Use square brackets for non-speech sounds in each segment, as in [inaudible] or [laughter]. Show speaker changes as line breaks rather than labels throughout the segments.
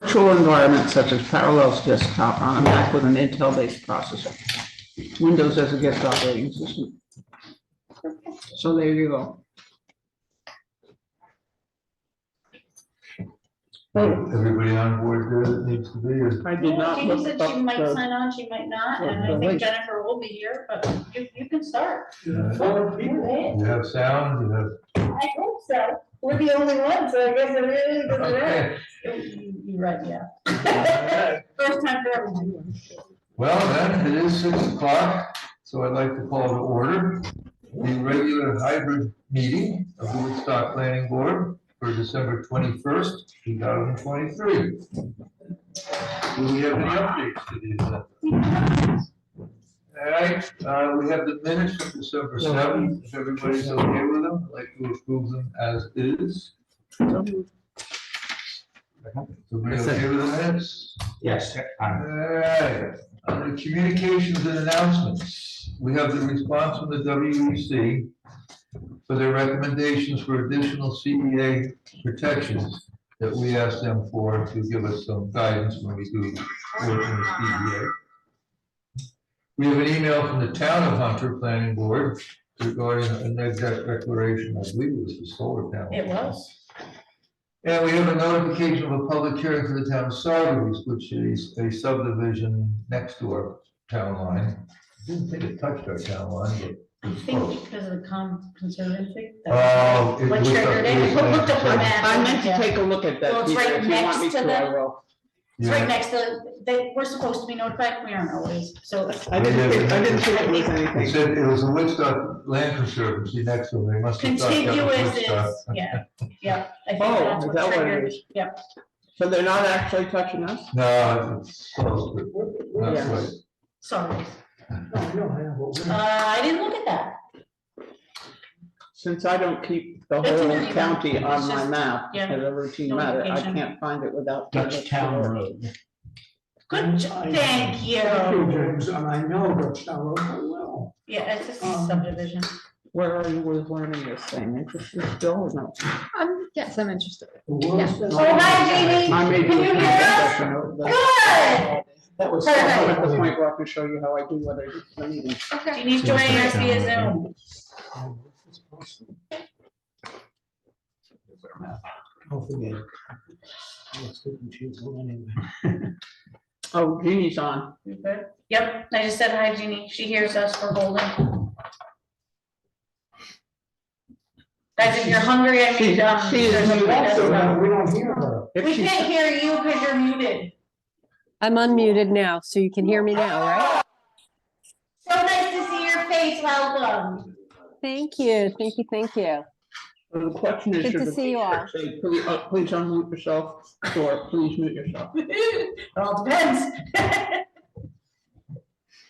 virtual environment such as Parallels Desktop on a Mac with an Intel-based processor. Windows as a guest operating system. So there you go.
Everybody on board there that needs to be, or
I did not
Jenny
look
said
up
she might
the,
sign on, she might not,
the-
and
the
I
link.
think Jennifer will be here, but you, you can start.
uh,
Four people.
you have sound, you have.
I hope so. We're the only ones, so I guess it really is.
Okay.
You're right, yeah. [laughs] First time for everyone.
Well, then, it is six o'clock, so I'd like to call to order the regular hybrid meeting of the Woodstock Planning Board for December twenty-first, two thousand twenty-three. Do we have any updates to these? All right, uh, we have the minutes from December seventh, if everybody's okay with them, I'd like to approve them as is. Somebody okay with the minutes?
Yes. I'm-
Alright, under communications and announcements, we have the response from the WEC for their recommendations for additional CEA protections that we asked them for to give us some guidance when we do work in the CEA. We have an email from the town of Hunter Planning Board regarding an exact declaration, I believe it was the solar panel.
It was.
And we have a notification of a public hearing for the town of Saugus, which is a subdivision next to our town line. Didn't think it touched our town line, but.
I
it's close.
think because of the con, conservancy.
Oh, it
What
was up-
triggered it? Who looked up
I
the map?
I meant to
Yeah.
take a look at
Well,
that.
it's
Peter,
right
if you want
next
me
to
I
them.
will.
It's right
Yeah.
next to, they, we're supposed to be notified, we aren't always, so.
I didn't, think- I didn't think it was
It
anything.
said it was the Woodstock Land Conservancy next to it, they must have thought that was
Contiguous
Woodstock.
is, yeah, [laughs] yeah. I think
Oh,
that's
is
what
that what it
triggered-
is?
Yep,
So they're not actually touching us?
No, it's close, but not
Yeah.
quite.
sorry. Uh, I didn't look at that,
Since I don't keep the
That's
whole
really good.
county on
It's
my
just-
map
yeah,
as a routine matter, I
notification.
can't find it without.
Dutch Town Road.
Mm-hmm.
good, jo- thank
Thank you,
you.
James, and I know Dutchtown Road very well.
Yeah, it's just
Um,
a subdivision.
oh, Where are you with learning this thing? Interested still or no?
Um, yes, I'm interested.
The worst-
Oh, hi, Jamie.
I may do a
Can you hear us?
presentation over the-
Good.
That was
Perfect.
somehow at the point where I can show you how I do what I do. for a living.
Okay.
Jeannie's joining us via Zoom.
Don't forget. Let's get them to you anyway.
Oh, Jeannie's on.
You good? Yep, I just said hi, Jeannie. She hears us. We're holding. Guys, if you're hungry, I
She-
mean, um,
she is
there's a
muted,
So
letter.
now we don't hear her.
If
We
she's-
can't hear you because you're muted.
I'm unmuted now, so you can hear me now, right?
So nice to see your face. Welcome.
Thank you, thank you, thank you.
The question is.
Good
should
to
the
see you
teacher say, Please uh, please unmute yourself or please mute yourself.
It all depends.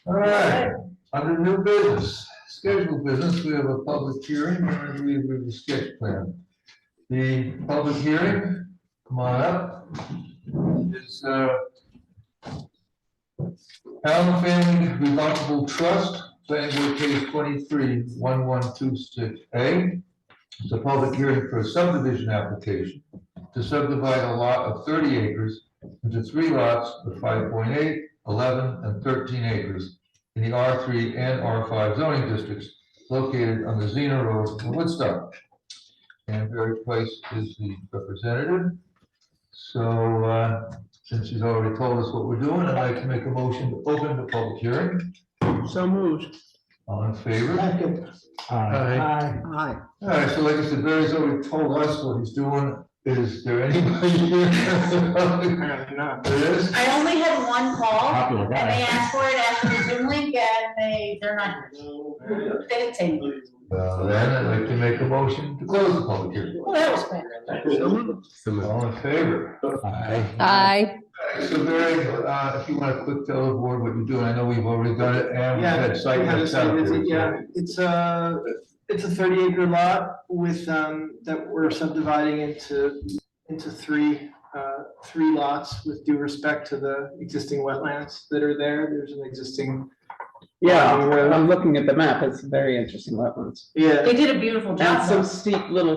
All right, under new business, scheduled business, we have a public hearing, and we have the sketch plan. The public hearing, come on up, is, uh, Allen Family Remarkable Trust, planning board case twenty-three, one, one, two, six, A. It's a public hearing for a subdivision application to subdivide a lot of thirty acres into three lots of 5.8, 11, and thirteen acres in the R three and R five zoning districts located on the Xena Road in Woodstock. And Barry Price is the representative. So, uh, since she's already told us what we're doing, I'd like to make a motion to open the public hearing.
So moved.
All in favor?
Second.
Uh,
Aye.
Aye.
All right, so like I said, Barry's already told us what he's doing. Is there anybody [laughs] here? There is?
I only had one
Uh,
call
Popular
and they
guy.
asked for it after the Zoom link and they, they're not. here. They didn't say. anything.
Well, then I'd like to make a motion to close the public hearing.
Well, that was quick.
So moved.
All in favor?
Aye,
So Barry, uh, if you want to quick tell the board what you're doing, I know we've already done it, and we've
Yeah,
had site
we had a
visits
site
out
visit,
there, so-
Yeah, it's a, it's a thirty acre lot with, um, that we're subdividing into, into three, uh, three lots with due respect to the existing wetlands that are there. There's an existing,
Yeah, I'm looking at the map. It's very interesting wetlands.
yeah.
They did a beautiful job.
And some
though.
steep little